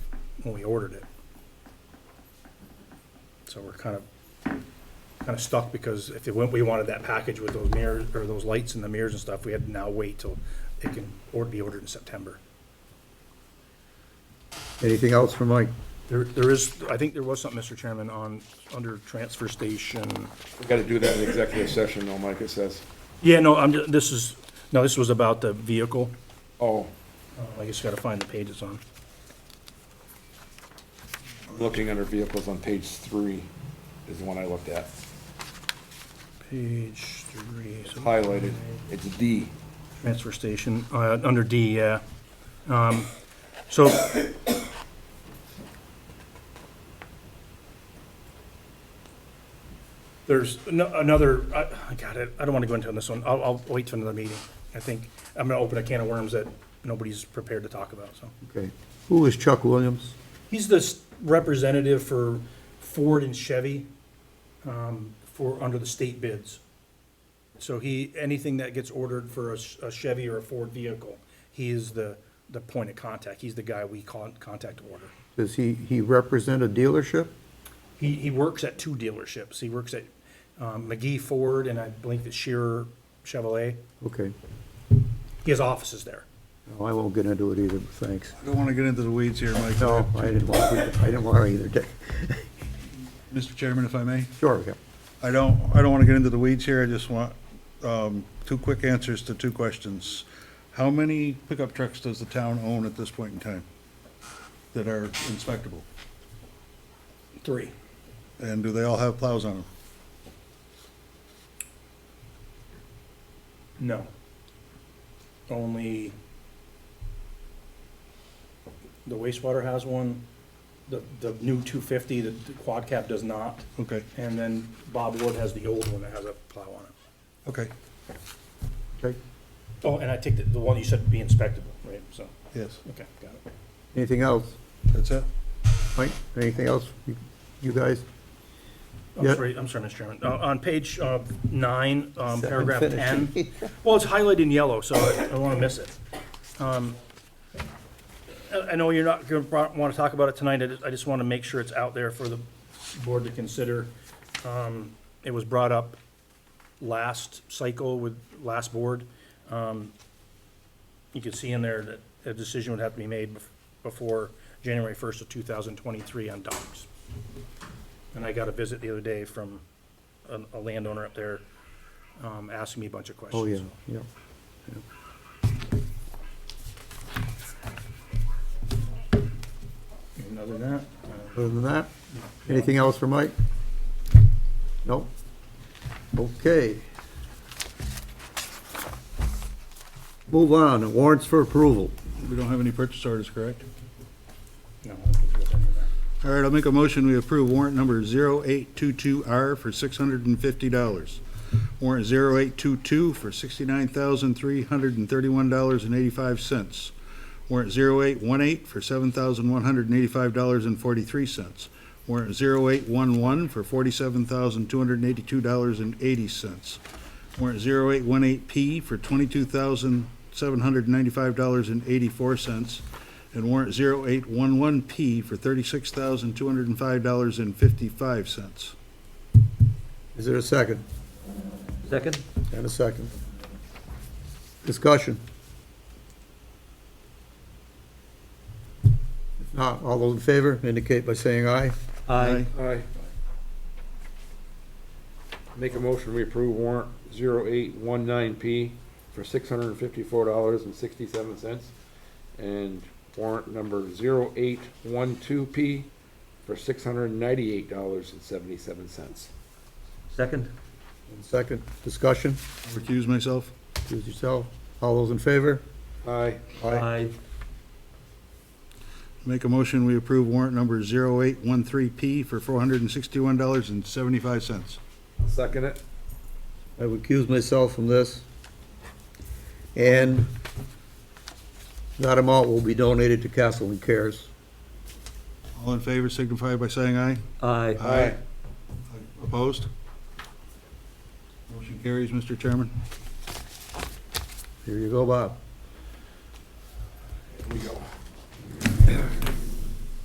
when we ordered it. So we're kind of, kind of stuck because if it went, we wanted that package with those mirrors, or those lights and the mirrors and stuff, we had to now wait till it can, or be ordered in September. Anything else for Mike? There, there is, I think there was something, Mr. Chairman, on, under transfer station. We gotta do that in executive session though, Mike, it says. Yeah, no, I'm, ju- this is, no, this was about the vehicle. Oh, Uh, I just gotta find the page it's on. I'm looking under vehicles on page three is the one I looked at. Page three. so- Highlighted, it's D. Transfer station, uh, under D, yeah. Um, So. There's ano- another, I I got it, I don't want to go into this one, I'll, I'll wait till another meeting. I think, I'm going to open a can of worms that nobody's prepared to talk about, so. Okay. Who is Chuck Williams? He's the s- representative for Ford and Chevy um, for, under the state bids. So he, anything that gets ordered for a s- a Chevy or a Ford vehicle, he is the, the point of contact. He's the guy we con- contact to order. Does he, he represent a dealership? He, he works at two dealerships. He works at um, McGee Ford and I believe it's Shearer Chevrolet. Okay. He has offices there. No, I won't get into it either, but thanks. I don't want to get into the weeds here, Mike. No, I didn't want, to- I didn't want to either, Dick. Mr. Chairman, if I may, Sure, yeah. I don't, I don't want to get into the weeds here. I just want um, two quick answers to two questions. How many pickup trucks does the town own at this point in time that are inspectable? Three. And do they all have plows on them? No. Only the wastewater has one, the, the new two fifty, the the quad cap does not, Okay, and then Bob Wood has the old one that has a plow on it. okay, Okay. Oh, and I take the, the one you said be inspectable, right, so, yes, okay, got it. Anything else? that's it. Mike, anything else? You- You guys? I'm Yeah. sorry, I'm sorry, Mr. Chairman, uh, on page, uh, nine, um, Second paragraph ten, finish. well, it's highlighted in yellow, so I don't wanna miss it. Um, I, I know you're not gonna pro- wanna talk about it tonight, I just, I just wanna make sure it's out there for the board to consider. Um, it was brought up last cycle with last board. Um, You can see in there that a decision would have to be made bef- before January first of two thousand twenty-three on docks. And I got a visit the other day from a, a landowner up there, um, asking me a bunch of questions. Oh, yeah, yeah. And other than that, Other than that, anything else for Mike? Nope. Okay. Move on, warrants for approval. We don't have any purchase orders, correct? no, I don't think there's any there. All right, I'll make a motion, we approve warrant number 0822R for $650. Warrant 0822 for $69,331.85. Warrant 0818 for $7,185.43. Warrant 0811 for $47,282.80. Warrant 0818P for $22,795.84. And warrant 0811P for $36,205.55. Is there a second? Second? And a second. Discussion. If not, all those in favor indicate by saying aye. Aye. Aye. Make a motion, we approve warrant zero eight one nine P for six hundred and fifty-four dollars and sixty-seven cents. And warrant number zero eight one two P for six hundred and ninety-eight dollars and seventy-seven cents. Second? And second, discussion, Recuse myself. choose yourself. All those in favor? Aye. Aye. Make a motion, we approve warrant number 0813P for $461.75. Second it? I would recuse myself from this. And that amount will be donated to Castle and Cares. All in favor signify by saying aye. Aye. Aye. Opposed? Motion carries, Mr. Chairman. Here you go, Bob. Here we go.